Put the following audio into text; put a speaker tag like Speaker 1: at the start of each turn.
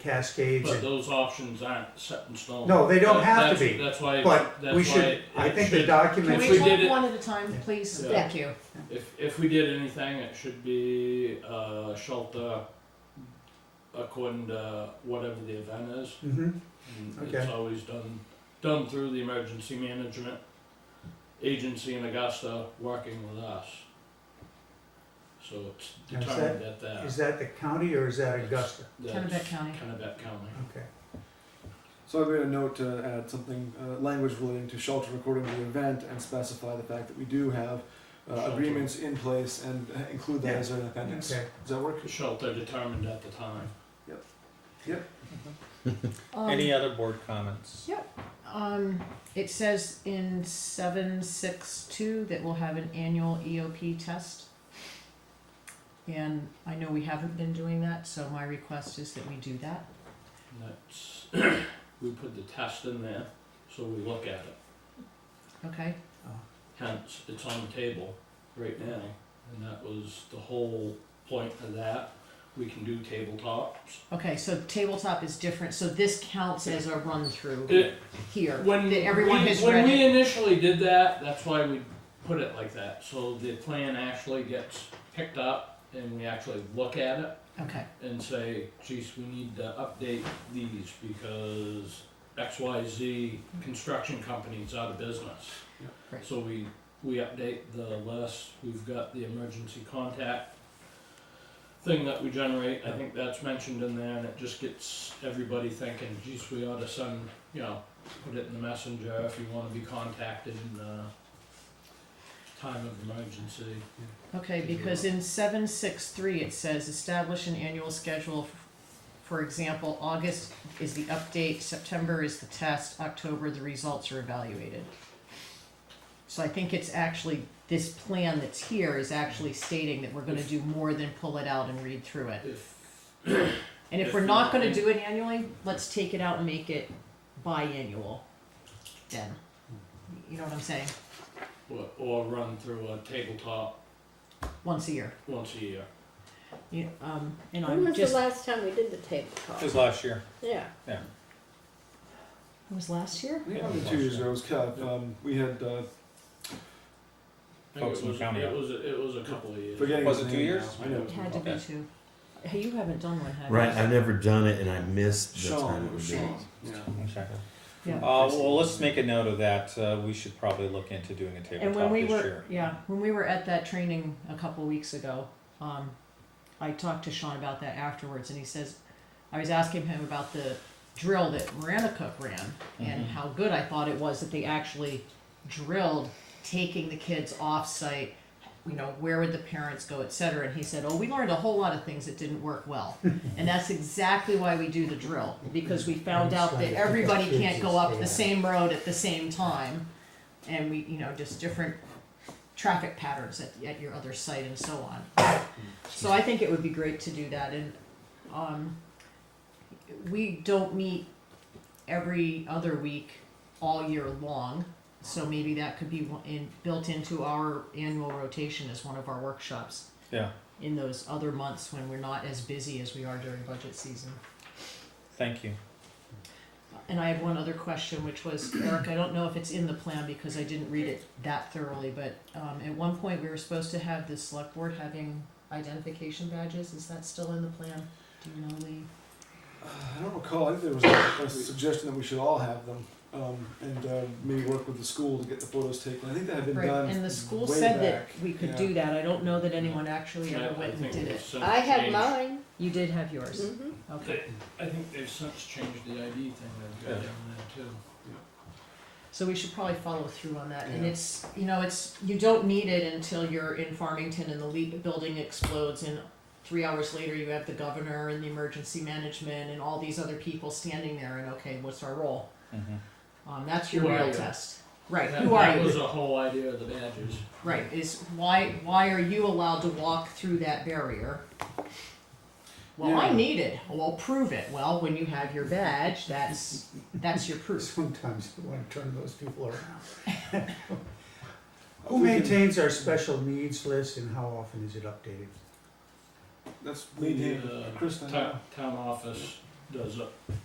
Speaker 1: cascades
Speaker 2: But
Speaker 1: and,
Speaker 2: those options aren't set in stone.
Speaker 1: no, they don't
Speaker 2: That-
Speaker 1: have to
Speaker 2: that's-
Speaker 1: be.
Speaker 2: That's why,
Speaker 1: But
Speaker 2: that's
Speaker 1: we
Speaker 2: why
Speaker 1: should,
Speaker 2: it-
Speaker 1: I
Speaker 2: it
Speaker 1: think the
Speaker 2: should-
Speaker 3: Can
Speaker 1: documents,
Speaker 2: If
Speaker 3: we
Speaker 2: we
Speaker 1: should-
Speaker 2: did
Speaker 3: talk
Speaker 2: it-
Speaker 3: one at a time, please?
Speaker 2: Yeah.
Speaker 3: Thank you.
Speaker 2: If, if we did anything, it should be uh, shelter according to whatever the event is.
Speaker 1: Mhm.
Speaker 2: And
Speaker 1: Okay.
Speaker 2: It's always done, done through the emergency management agency in Augusta, working with us. So it's
Speaker 1: Now, is
Speaker 2: determined at that,
Speaker 1: is that the county or is that
Speaker 2: It's-
Speaker 1: Augusta?
Speaker 2: that's
Speaker 3: Kennebec County.
Speaker 2: Kennebec County.
Speaker 1: Okay,
Speaker 4: So I made a note to add something, uh, language relating to shelter according to the event, and specify the fact that we do have uh,
Speaker 2: Shelter.
Speaker 4: agreements in place, and uh, include that
Speaker 1: Yeah.
Speaker 4: as an appendix.
Speaker 1: okay.
Speaker 4: Does that work?
Speaker 2: Shelter determined at the time.
Speaker 3: Um,
Speaker 5: Any other board comments?
Speaker 3: Um, it says in seven six two that we'll have an annual EOP test. And I know we haven't been doing that, so my request is that we do that.
Speaker 2: And That's, we put the test in there, so we look at it.
Speaker 3: Okay,
Speaker 2: Hence, it's on the table right now, and that was the whole point of that. We can do tabletops.
Speaker 3: okay, so tabletop is different, so this counts as a run through
Speaker 2: It-
Speaker 3: here,
Speaker 2: When
Speaker 3: that everyone
Speaker 2: we-
Speaker 3: has
Speaker 2: When
Speaker 3: read
Speaker 2: we
Speaker 3: it.
Speaker 2: initially did that, that's why we put it like that, so the plan actually gets picked up and we actually look at it
Speaker 3: Okay,
Speaker 2: and say, geez, we need to update these because X, Y, Z construction company's out of business.
Speaker 4: Yeah.
Speaker 3: Right.
Speaker 2: So we, we update the list, we've got the emergency contact thing that we generate, I think that's mentioned in there, and it just gets everybody thinking, geez, we ought to send, you know, put it in the messenger if you wanna be contacted in, uh, time of emergency.
Speaker 3: okay, because in seven six three, it says establish an annual schedule. For example, August is the update, September is the test, October, the results are evaluated. So I think it's actually, this plan that's here is actually stating that we're gonna do more than pull it out and read through it.
Speaker 2: If,
Speaker 3: And if
Speaker 2: If
Speaker 3: we're
Speaker 2: you-
Speaker 3: not gonna do it annually, let's take it out and make it biannual then. You know what I'm saying?
Speaker 2: or, or run through a tabletop
Speaker 3: Once a year.
Speaker 2: once a year.
Speaker 3: You, um, and
Speaker 6: When
Speaker 3: I'm
Speaker 6: was the
Speaker 3: just,
Speaker 6: last time we did the tabletop?
Speaker 5: It was last year.
Speaker 6: Yeah.
Speaker 3: it was last year?
Speaker 4: I think after two years ago, it was Kev. Um, we had uh,
Speaker 2: I think
Speaker 5: Folks
Speaker 2: it
Speaker 5: in
Speaker 2: was,
Speaker 5: county.
Speaker 2: it was, it was a couple of years.
Speaker 4: forgetting.
Speaker 5: Was
Speaker 4: his
Speaker 5: it two
Speaker 4: name
Speaker 5: years?
Speaker 4: now. I know.
Speaker 3: It had to be
Speaker 5: Okay.
Speaker 3: two. Hey, you haven't done one, have you?
Speaker 7: Right, I've never done it, and I missed the time it
Speaker 4: Sean.
Speaker 7: would be.
Speaker 4: Sean. Yeah.
Speaker 5: Okay.
Speaker 3: Yeah.
Speaker 5: Uh, well, let's make a note of that. Uh, we should probably look into doing a
Speaker 3: And
Speaker 5: tabletop
Speaker 3: when we
Speaker 5: this
Speaker 3: were,
Speaker 5: year.
Speaker 3: yeah, when we were at that training a couple weeks ago, um, I talked to Sean about that afterwards, and he says, I was asking him about the drill that Miranda Cook ran and
Speaker 5: Mhm.
Speaker 3: how good I thought it was that they actually drilled taking the kids off site. You know, where would the parents go, et cetera? And he said, Oh, we learned a whole lot of things that didn't work well. and that's exactly why we do the drill, because we found out that everybody can't go up the same road at the same time. And we, you know, just different traffic patterns at, at your other site and so on. So I think it would be great to do that and, um, we don't meet every other week all year long. So maybe that could be one- in, built into our annual rotation as one of our workshops
Speaker 5: Yeah.
Speaker 3: in those other months when we're not as busy as we are during budget season.
Speaker 5: Thank you.
Speaker 3: And I have one other question, which was, Eric, I don't know if it's in the plan because I didn't read it that thoroughly, but um, at one point, we were supposed to have the select board having identification badges, is that still in the plan? Do you know, Lee?
Speaker 4: Uh, I don't recall. I think there was a, a suggestion that we should all have them, um, and uh, maybe work with the school to get the photos taken. I think that had been done.
Speaker 3: Right, and the school
Speaker 4: way
Speaker 3: said that
Speaker 4: back.
Speaker 3: we could
Speaker 4: Yeah.
Speaker 3: do that, I don't know that anyone actually
Speaker 2: I-
Speaker 3: ever
Speaker 2: I
Speaker 3: went and
Speaker 2: think
Speaker 3: did
Speaker 2: they've
Speaker 3: it.
Speaker 2: since
Speaker 6: I had
Speaker 2: changed-
Speaker 6: mine.
Speaker 3: You did have yours,
Speaker 6: hmm
Speaker 3: okay.
Speaker 2: they- I think they've since changed the ID thing they've got
Speaker 5: Yeah.
Speaker 2: down there too.
Speaker 3: So we should probably follow through on that, and
Speaker 4: Yeah.
Speaker 3: it's, you know, it's, you don't need it until you're in Farmington and the le- building explodes and three hours later you have the governor and the emergency management and all these other people standing there and okay, what's our role?
Speaker 5: Mhm.
Speaker 3: Um, that's your
Speaker 2: Who are
Speaker 3: real
Speaker 2: you?
Speaker 3: test. Right,
Speaker 2: That-
Speaker 3: who are
Speaker 2: That was
Speaker 3: you?
Speaker 2: the whole idea of the badges.
Speaker 3: Right, is why, why are you allowed to walk through that barrier? Well, I
Speaker 4: Yeah.
Speaker 3: need it, well, prove it, well, when you have your badge, that's, that's your proof.
Speaker 1: Sometimes you wanna turn those people around. Who
Speaker 4: We can-
Speaker 1: maintains our special needs list and how often is it updated?
Speaker 4: That's
Speaker 2: We
Speaker 4: maintained.
Speaker 2: did, uh,
Speaker 4: Chris, I know.
Speaker 2: Town, town office does it.